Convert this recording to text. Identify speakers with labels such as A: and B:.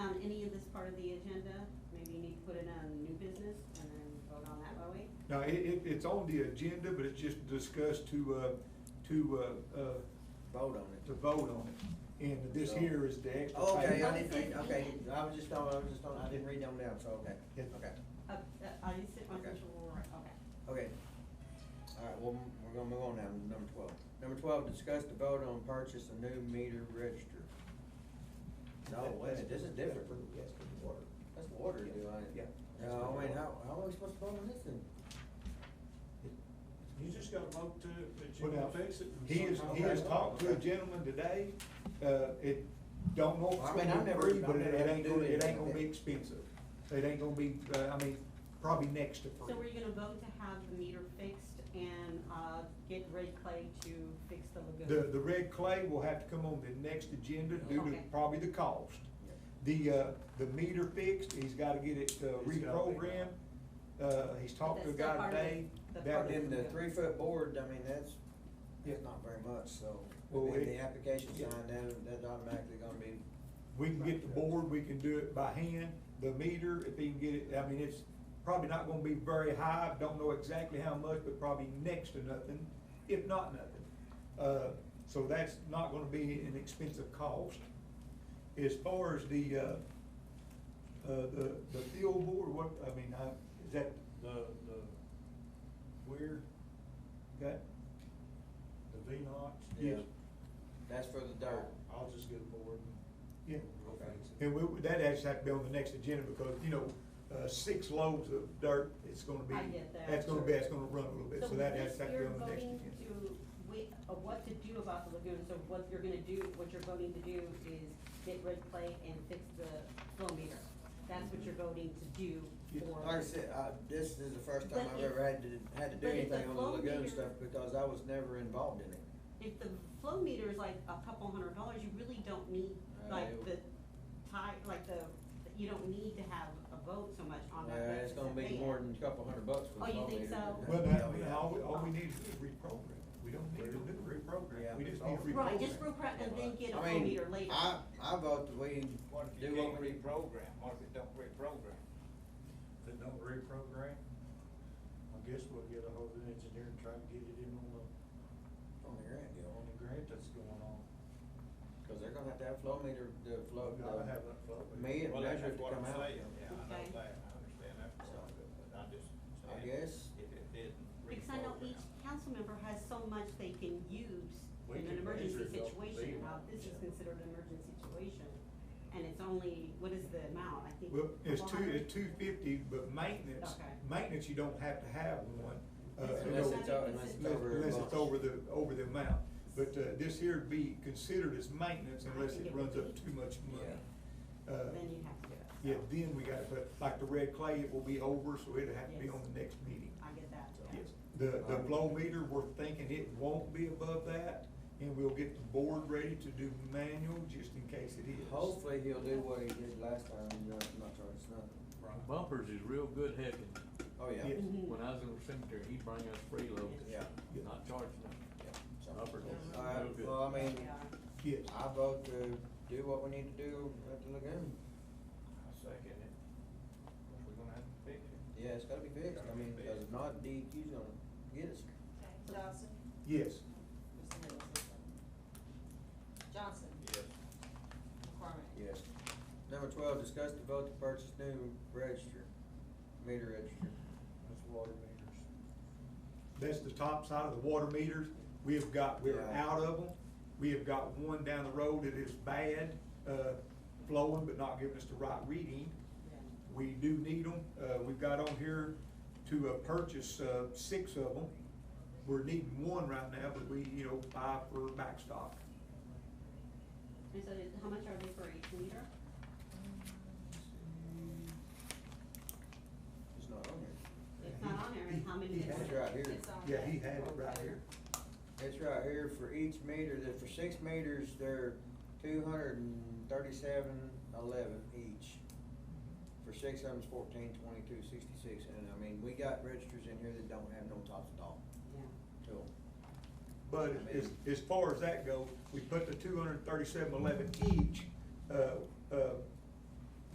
A: part Um, of the agenda, maybe you need to put it on new business and then vote on that, Bowie?
B: No, it, it, it's on the agenda, but it's just discussed to, uh, to, uh, uh,
C: vote on
B: to
C: it. Oh,
B: vote on it. And this here is the extra.
C: Okay, I
B: payment.
C: didn't, think- okay, I was just on, I was just on, I didn't read them down, so, okay,
B: Yeah.
C: okay,
A: Uh, uh, are you sit on
C: Okay.
A: Central Aurora? Okay.
C: okay. All right, well, m- we're gonna move on now, to number twelve. Number twelve, discuss the vote on purchase a new meter register. No, wait, a minute, this is different.
D: Yes, for the water.
C: That's water, do I?
D: Yeah.
C: No, I mean, how, how are we supposed to vote on this then?
E: You just gotta vote to, that you
B: What
E: can
B: else?
E: fix it.
B: He has, he has talked to a gentleman today, uh, it, don't know if
C: I
B: it's
C: mean,
B: gonna
C: I've
B: be
C: never-
B: free,
C: I've
B: but it
C: never
B: it ain't
C: do
B: gonna, it
C: anything
B: ain't gonna
C: like
B: be
C: that.
B: expensive. It ain't gonna be, uh, I mean, probably next to free.
A: So were you gonna vote to have the meter fixed and, uh, get Red Clay to fix the
B: The,
A: lagoon?
B: the red clay will have to come on the next agenda due to
A: Okay.
B: probably the cost.
C: Yeah.
B: The, uh, the meter fixed, he's gotta get it uh,
E: He's gotta figure
B: reprogrammed,
E: it
B: uh, he's talked
A: that's
B: to a
A: still
B: guy
A: part of the-
B: today.
A: the part
B: that
C: But
A: of
B: will-
C: then the three foot board, I mean, that's,
B: Yeah.
C: that's not very much, so, I
B: Well,
C: mean,
B: it-
C: the application
B: yeah.
C: signed, that, that's automatically gonna be,
B: We can get the board, we can do it by hand, the meter, if he can get it, I mean, it's probably not gonna be very high, don't know exactly how much, but probably next to nothing, if not nothing. Uh, so that's not gonna be an expensive cost. As far as the, uh, uh, the, the fuel board, what, I mean, I, is that,
E: The, the, where,
B: that,
E: the V-Nox.
B: yes,
C: Yeah. that's for the dirt.
E: I'll just get a board
B: yeah.
E: and we'll fix it.
B: And we, that has to be on the next agenda, because, you know, uh, six loads of dirt, it's gonna be,
A: I get that.
B: that's gonna be, that's gonna run a little bit, so that has to be on the next
A: So this,
B: agenda.
A: you're voting to, wi- uh, what to do about the lagoon, so what you're gonna do, what you're voting to do is get Red Clay and fix the flow meter. That's what you're voting to do for.
C: Like I said, I, this is the first time
A: But
C: I've
A: if-
C: ever had to, had to do
A: but if the
C: anything on the
A: flow
C: lagoon
A: meter-
C: stuff, because I was never involved in it.
A: If the flow meter is like a couple hundred dollars, you really don't need, like, the
C: Uh,
A: tie, like the, you don't need to have a vote so much on that.
C: Uh, it's gonna be
A: basis.
C: more than a couple hundred bucks for
A: Oh,
C: the
A: you
C: flow
A: think
C: meter.
A: so?
B: Well,
C: Yeah,
E: Oh,
B: that,
C: yeah.
B: all, we- oh, all we need to do is reprogram, it. we don't need to do
C: Yeah.
B: reprogram, we just need to reprogram.
A: Right, just reprograms and then get a
C: I
A: flow
C: mean,
A: meter later.
C: I, I vote that we
F: What if
C: do
F: you
C: what
F: can't
C: we.
F: reprogram, what if it don't reprogram?
E: If it don't reprogram, I guess we'll get a hold of the engineer and try to get it in on the,
C: On the grant deal,
E: on the grant that's going on.
C: cause they're gonna have to have flow meter, the flow,
E: We gotta have that flow meter.
C: the me and
F: Well, that's
C: measure to
F: what
C: come
F: I'm
C: out.
F: saying. Yeah, I
A: Okay.
F: know that, I understand that part of it, but I just.
C: I
F: said
C: guess.
F: If it didn't
A: Because I know each
F: reprogram.
A: council member has so much they can use in
E: We
A: an
E: can
A: emergency
E: measure it off the
A: situation,
E: beam.
A: now this is considered an emergency situation. And it's only, what is the amount, I think?
B: Well, it's two,
A: 400?
B: it's two fifty, but maintenance,
A: Okay.
B: maintenance, you don't have to have one. uh, you
C: Unless
B: know,
C: it's, o- unless it's
B: Unless
C: over. a
B: unless
C: bunch.
B: it's over the, over the amount, but, uh, this here would be considered as maintenance unless it runs up too much money. Uh,
A: Then you have to do it.
B: yeah,
A: so
B: then we gotta put, like the red clay, it will be over, so it'll have to be on the next meeting.
A: I get that, yeah.
B: Yes, the, the flow meter, we're thinking it won't be above that, and we'll get the board ready to do manual, just in case it is.
C: Hopefully he'll do what he did last time, and not, not charge us nothing.
G: Bumpers is real good hacking.
C: Oh, yeah.
B: Yeah.
A: Mhm.
G: When I was in the cemetery, he'd bring us freeloaders.
C: Yeah.
B: Yeah.
G: Not charging them.
C: Yeah, so-
G: Bumpers is
C: All right,
G: real good.
C: well, I mean,
A: Yeah.
B: Yes,
C: I vote to do what we need to do at the lagoon.
F: I second it, If we're gonna have to fix it.
C: Yeah, it's gotta be fixed, I mean, because if not, DEQ's gonna get us.
H: Johnson?
B: yes,
H: Mr. Middleton? Johnson?
F: Yes.
H: McCormick?
C: Yes. Number twelve, discuss the vote to purchase new register, meter register.
E: That's water meters.
B: that's the top side of the water meters, we have got, we're
C: Yeah.
B: out of them, we have got one down the road that is bad, uh, flowing, but not giving us the right reading. We do need them, uh, we've got on here to, uh, purchase, uh, six of them, we're needing one right now, but we, you know, buy for backstop.
A: And so how much are they for each meter?
C: It's not on
A: It's not on there, and how many?
B: He- he
A: is
B: has
A: it?
C: it right here.
H: It's on
B: Yeah,
H: that.
B: he had it right here.
C: here. It's right here for each meter, that for six meters, they're two hundred and thirty-seven eleven each. For six of them's fourteen twenty-two sixty-six, and I mean, we got registers in here that don't have no tops at all,
A: Yeah.
C: so.
B: But as, as far as that goes, we put the two hundred and thirty-seven eleven each, uh, uh,